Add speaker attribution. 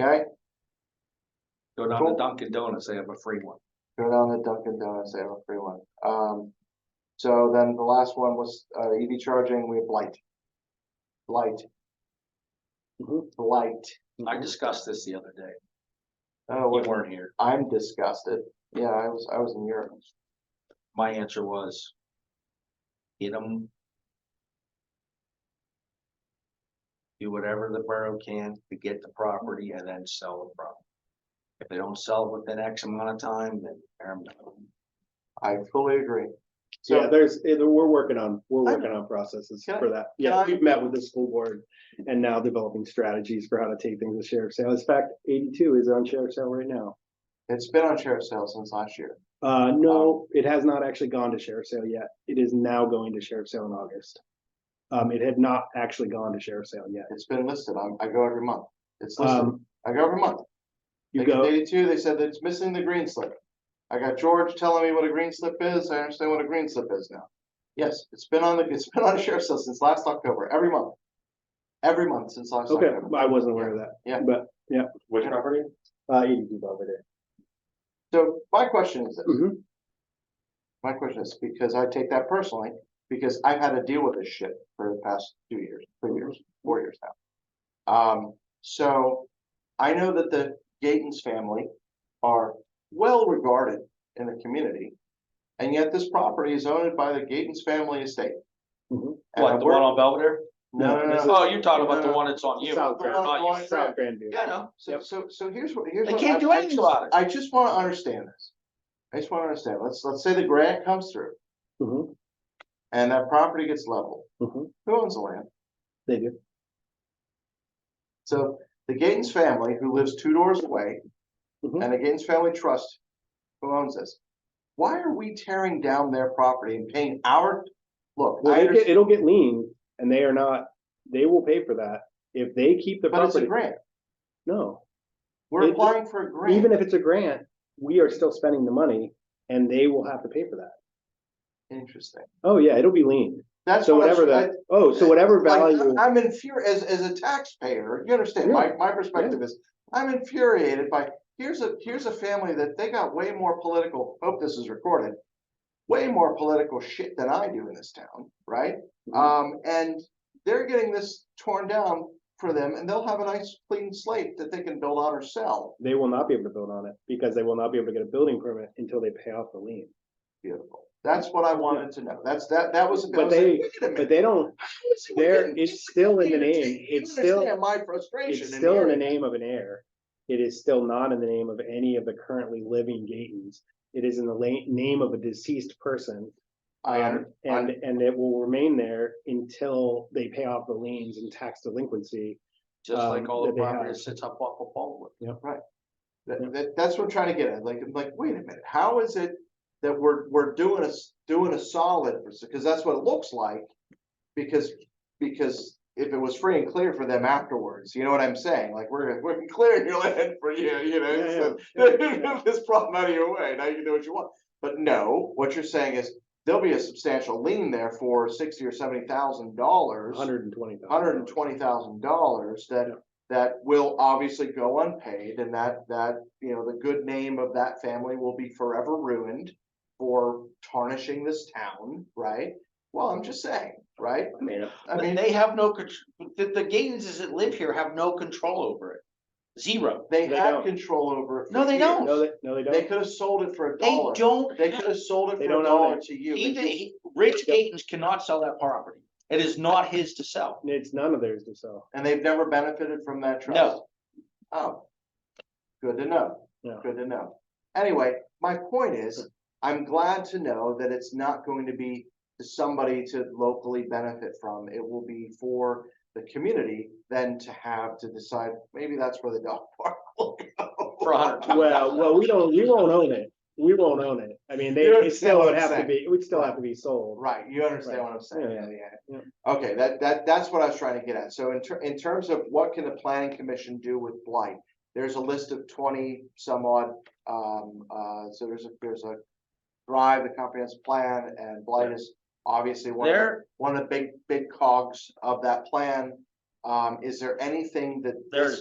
Speaker 1: Okay,
Speaker 2: Go down to
Speaker 1: Cool.
Speaker 2: Dunkin' Donuts, they have a free one.
Speaker 1: go down to Dunkin' Donuts, they have a free one. Um, so then the last one was, uh, EV charging, we have light. Light.
Speaker 2: Mhm.
Speaker 3: Mm-hmm.
Speaker 1: Light.
Speaker 2: I discussed this the other day.
Speaker 1: Oh,
Speaker 2: We
Speaker 1: wait,
Speaker 2: weren't here.
Speaker 1: I'm disgusted. Yeah, I was, I was in Europe.
Speaker 2: My answer was. Hit them. Do whatever the borough can to get the property and then sell the property. If they don't sell within X amount of time, then. tear 'em down.
Speaker 1: I fully agree.
Speaker 3: Yeah,
Speaker 1: So,
Speaker 3: there's, eh, we're working on, we're
Speaker 1: I
Speaker 3: working on processes
Speaker 1: Can I-
Speaker 3: for that.
Speaker 1: can
Speaker 3: Yeah,
Speaker 1: I-
Speaker 3: we've met with the school board and now developing strategies for how to take things to sheriff's sale. In fact, eighty-two is on sheriff's sale right now.
Speaker 1: it's been on sheriff's sale since last year.
Speaker 3: Uh, no, it has not actually gone to sheriff's sale yet. It is now going to sheriff's sale in August. Um, it had not actually gone to sheriff's sale yet.
Speaker 1: It's been listed. I, I go every month. It's listed.
Speaker 3: Um,
Speaker 1: I go every month.
Speaker 3: you
Speaker 1: They got
Speaker 3: go,
Speaker 1: eighty-two, they said that it's missing the green slip. I got George telling me what a green slip is, I understand what a green slip is now. Yes, it's been on the, it's been on the sheriff's list since last October, every month. Every month since last
Speaker 3: okay,
Speaker 1: October.
Speaker 3: I wasn't aware of that.
Speaker 1: Yeah.
Speaker 3: But, yeah.
Speaker 1: Which
Speaker 3: property? Uh, eighty-two over there.
Speaker 1: So my question is, this.
Speaker 3: Mhm.
Speaker 1: my question is, because I take that personally, because I've had to deal with this shit for the past two years, three years, four years now. Um, so I know that the Gaten's family are well regarded in the community. And yet this property is owned by the Gaten's family estate.
Speaker 3: Mhm.
Speaker 1: And
Speaker 2: Mm-hmm. What,
Speaker 1: I'm
Speaker 2: the one
Speaker 1: wor-
Speaker 2: on Belvedere?
Speaker 1: No, no, no, no.
Speaker 2: Oh, you're talking about the
Speaker 1: No, no.
Speaker 2: one that's on you.
Speaker 3: South
Speaker 1: Grand-
Speaker 2: Not you.
Speaker 1: Grand-
Speaker 3: South Grandview.
Speaker 2: Yeah, I know.
Speaker 1: So,
Speaker 3: Yep.
Speaker 1: so, so here's what, here's.
Speaker 2: They
Speaker 1: what
Speaker 2: can't
Speaker 1: I-
Speaker 2: do
Speaker 1: I
Speaker 2: anything
Speaker 1: just-
Speaker 2: about it.
Speaker 1: I just wanna understand this. I just wanna understand. Let's, let's say the grant comes through
Speaker 3: Mhm,
Speaker 1: and that property gets leveled.
Speaker 3: mhm.
Speaker 1: Who owns the land?
Speaker 3: They do.
Speaker 1: So the Gaines family, who lives two doors away,
Speaker 3: Mhm.
Speaker 1: and the Gaines Family Trust, who owns this? Why are we tearing down their property and paying our, look,
Speaker 3: Well,
Speaker 1: I
Speaker 3: it get,
Speaker 1: understand,
Speaker 3: it'll get lean and they are not, they will pay for that. If they keep the
Speaker 1: but it's a
Speaker 3: property,
Speaker 1: grant.
Speaker 3: no,
Speaker 1: We're
Speaker 3: It-
Speaker 1: applying for a grant.
Speaker 3: even if it's a grant, we are still spending the money and they will have to pay for that.
Speaker 1: Interesting.
Speaker 3: Oh, yeah, it'll be lean.
Speaker 1: That's
Speaker 3: So
Speaker 1: what I was-
Speaker 3: whatever that, oh, so whatever
Speaker 1: I- like,
Speaker 3: value,
Speaker 1: I'm infuriated, as, as a taxpayer, you understand, my, my perspective is, I'm infuriated by, here's a, here's a family that they got way more political, hope this is recorded. Way more political shit than I do in this town, right?
Speaker 3: Mhm.
Speaker 1: Um, and they're getting this torn down for them and they'll have a nice clean slate that they can build on or sell.
Speaker 3: they will not be able to build on it because they will not be able to get a building permit until they pay off the lien.
Speaker 1: Beautiful. That's what I wanted to know. That's, that, that was.
Speaker 3: But they- But they don't, there,
Speaker 1: there
Speaker 3: it's still in the name, it's still,
Speaker 1: My frustration.
Speaker 3: It's
Speaker 1: and
Speaker 3: still in the
Speaker 1: irritation.
Speaker 3: name of an heir. It is still not in the name of any of the currently living Gatons. It is in the la- name of a deceased person.
Speaker 1: I under-
Speaker 3: um, And, and it will remain there until they pay off the liens and tax delinquency.
Speaker 2: Just like
Speaker 3: Um,
Speaker 2: all the
Speaker 3: that they have.
Speaker 2: property that sits up off of Baldwin.
Speaker 1: That, that, that's what I'm trying to get at, like, I'm like, wait a minute, how is it that we're, we're doing a, s- doing a solid, because that's what it looks like. Because, because if it was free and clear for them afterwards, you know what I'm saying, like, we're, we're clearing your land for you, you know?
Speaker 3: Yeah,
Speaker 1: so-
Speaker 3: yeah, yeah.
Speaker 1: This problem out of your way, now you can do what you want, but no, what you're saying is, there'll be a substantial lien there for sixty or seventy thousand dollars
Speaker 3: Hundred and twenty thousand.
Speaker 1: hundred and twenty thousand dollars that,
Speaker 3: Yeah.
Speaker 1: that will obviously go unpaid and that, that, you know, the good name of that family will be forever ruined for tarnishing this town, right? Well, I'm just saying, right?
Speaker 3: I mean,
Speaker 1: I
Speaker 2: They-
Speaker 1: mean,
Speaker 2: They have no, contr- the, the Gaines that live here have no control over it. Zero.
Speaker 1: they
Speaker 3: They
Speaker 1: had
Speaker 3: don't.
Speaker 1: control over it. for
Speaker 2: No, they
Speaker 1: years.
Speaker 2: don't.
Speaker 3: no, they, no, they
Speaker 1: They
Speaker 3: don't.
Speaker 1: could have sold it for a
Speaker 2: They
Speaker 1: dollar.
Speaker 2: don't,
Speaker 1: They could have sold it
Speaker 3: They
Speaker 1: for a
Speaker 3: don't own
Speaker 1: dollar
Speaker 3: it.
Speaker 1: to you. They
Speaker 2: even,
Speaker 1: just-
Speaker 2: he- Rich Gaines cannot sell that property. It is not his to sell.
Speaker 3: It's none of theirs to sell.
Speaker 1: And they've never benefited from that trust?
Speaker 2: No.
Speaker 1: Oh. Good to know.
Speaker 3: Yeah.
Speaker 1: Good to know. Anyway, my point is, I'm glad to know that it's not going to be to somebody to locally benefit from. It will be for the community then to have to decide, maybe that's where the dog park will go.
Speaker 2: For a hundred.
Speaker 3: Well, well, we don't, we won't own it. We won't own it. I mean, they,
Speaker 1: You
Speaker 3: it
Speaker 1: understand
Speaker 3: still
Speaker 1: what
Speaker 3: would
Speaker 1: I'm
Speaker 3: have to
Speaker 1: saying.
Speaker 3: be, it would still have to be sold.
Speaker 1: Right, you understand what I'm saying?
Speaker 3: Yeah,
Speaker 1: yeah. Okay, that, that, that's what I was trying to get at. So in ter- in terms of what can the planning commission do with blight? There's a list of twenty some odd, um, uh, so there's a, there's a drive, the comprehensive plan, and blight is obviously one of, the-
Speaker 2: There,
Speaker 1: one of the big, big cogs of that plan. Um, is there anything that this
Speaker 2: There's-